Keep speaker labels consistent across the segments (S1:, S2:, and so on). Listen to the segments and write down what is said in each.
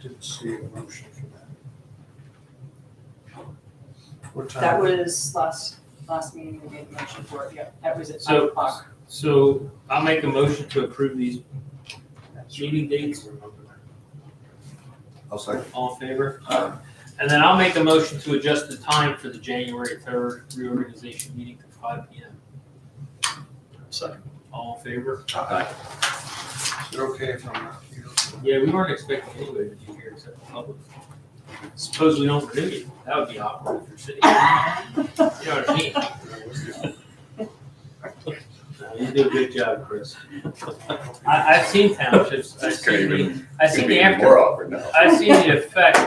S1: didn't see a motion for that. What time?
S2: That was last, last meeting we made the motion for it, yep, that was at five
S3: So-
S2: o'clock.
S3: So I'll make a motion to approve these meeting dates,
S4: I'll second.
S3: all in favor? And then I'll make a motion to adjust the time for the January third reorganization meeting to five P M.
S5: Second.
S3: All in favor?
S1: Is it okay if I'm not here?
S3: Yeah, we weren't expecting anybody to be here except the public. Suppose we don't renew you, that would be awkward for city. You know what I mean? No, You do a good job, Chris. I, I've seen townships, I've
S5: This could
S3: seen the,
S5: even,
S3: I've
S5: could
S3: seen
S5: be
S3: the
S5: even
S3: after
S5: more awkward now.
S3: I've seen the effect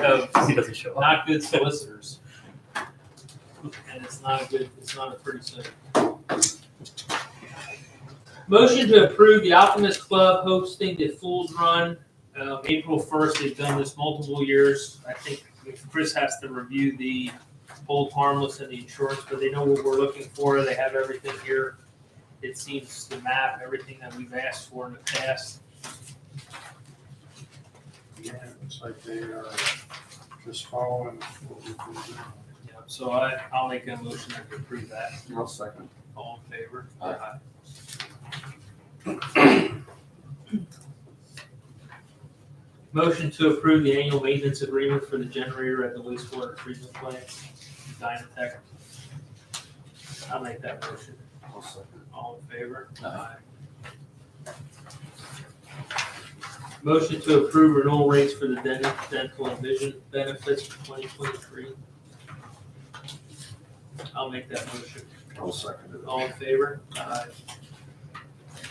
S3: of
S5: He doesn't show up.
S3: not good solicitors. And it's not a good, it's not a pretty thing. Motion to approve the Optimist Club hosting the Fools Run, um, April first. They've done this multiple years. I think Chris has to review the hold harmless and the insurance, but they know what we're looking for. They have everything here. It seems to map everything that we've asked for in the past.
S1: Yeah, it's like they are just following what we've been doing.
S3: Yeah, So I, I'll make a motion to approve that.
S4: I'll second.
S3: All in favor?
S5: Aye.
S3: Motion to approve the annual maintenance agreement for the generator at the wastewater treatment plant, Dynatech. I'll make that motion.
S4: I'll second.
S3: All in favor?
S5: Aye.
S3: Motion to approve renewal rates for the dental, dental and vision benefits for twenty twenty-three. I'll make that motion.
S4: I'll second it.
S3: All in favor? Aye.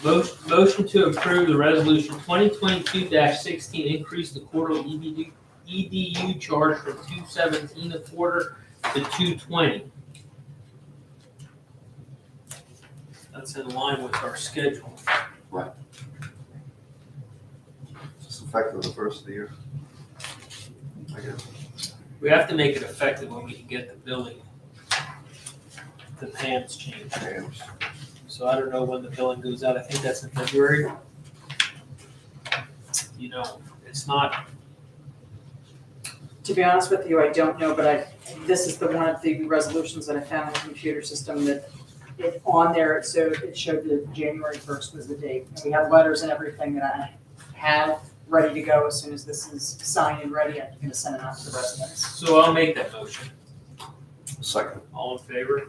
S3: Motion, motion to approve the resolution twenty twenty-two sixteen, increase the quarterly E EBD EDU charge from two seventeen a quarter to two twenty. That's in line with our schedule.
S4: It's effective the first of the year. I guess.
S3: We have to make it effective when we can get the billing. The PAMs changed,
S4: James.
S3: so I don't know when the billing goes out, I think that's in February. You know, it's not,
S2: To be honest with you, I don't know, but I, this is the one of the resolutions that I found in the computer system that it, on there, it showed, it showed that January first was the date. And we have letters and everything that I have ready to go as soon as this is signed and ready, I'm gonna send it out to the residents.
S3: so I'll make that motion.
S4: Second.
S3: All in favor?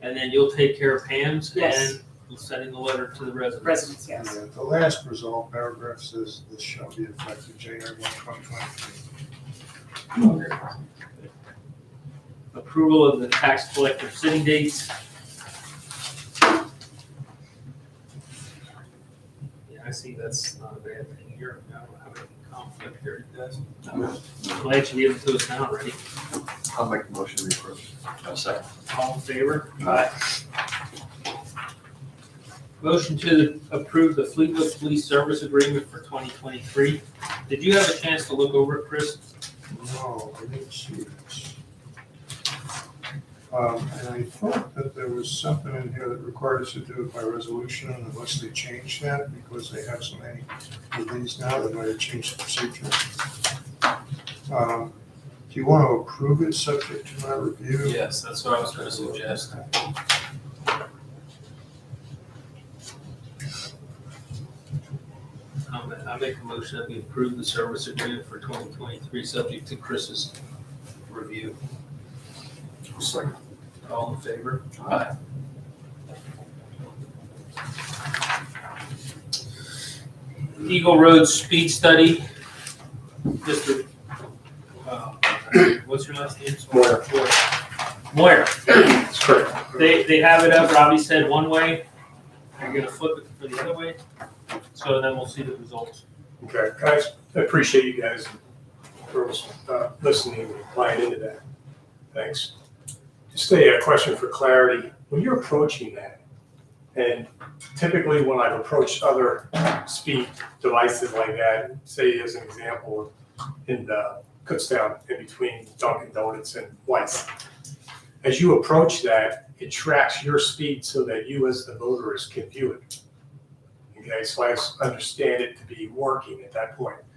S3: And then you'll take care of Pam's
S2: Yes.
S3: and we'll sending the letter to the residents.
S2: Residents, yes.
S1: And The last result paragraph says this shall be effective January one, twenty twenty-three.
S3: Approval of the tax collector sitting dates. Yeah, I see that's not a bad thing here. I don't have any conflict there, it does. Glad you gave it to us now already.
S4: I'll make the motion to approve.
S5: I'll second.
S3: All in favor?
S4: Aye.
S3: Motion to approve the Fleetwood Police Service Agreement for twenty twenty-three. Did you have a chance to look over it, Chris?
S1: No, I didn't see this. Um, and I thought that there was something in here that required us to do it by resolution unless they changed that because they have so many of these now, they might have changed the procedure. Um, Do you want to approve it subject to my review?
S3: Yes, that's what I was gonna suggest. Um, I make a motion that we approve the service agreement for twenty twenty-three, subject to Chris's review.
S4: I'll second.
S3: All in favor?
S5: Aye.
S3: Eagle Road Speed Study. Mr. uh, What's your last name?
S5: Moyer.
S3: Moyer.
S5: It's correct.
S3: They, they have it up, Robbie said one way, they're gonna flip it for the other way, so then we'll see the results.
S6: Okay, guys, I appreciate you guys and girls uh, listening and buying into that. Thanks. Just a uh, question for clarity. When you're approaching that, and typically when I've approached other speed devices like that, say as an example, in uh, Kutztown in between Dunkin' Donuts and White's, as you approach that, it tracks your speed so that you as the motorist can view it. Okay, so I s- understand it to be working at that point.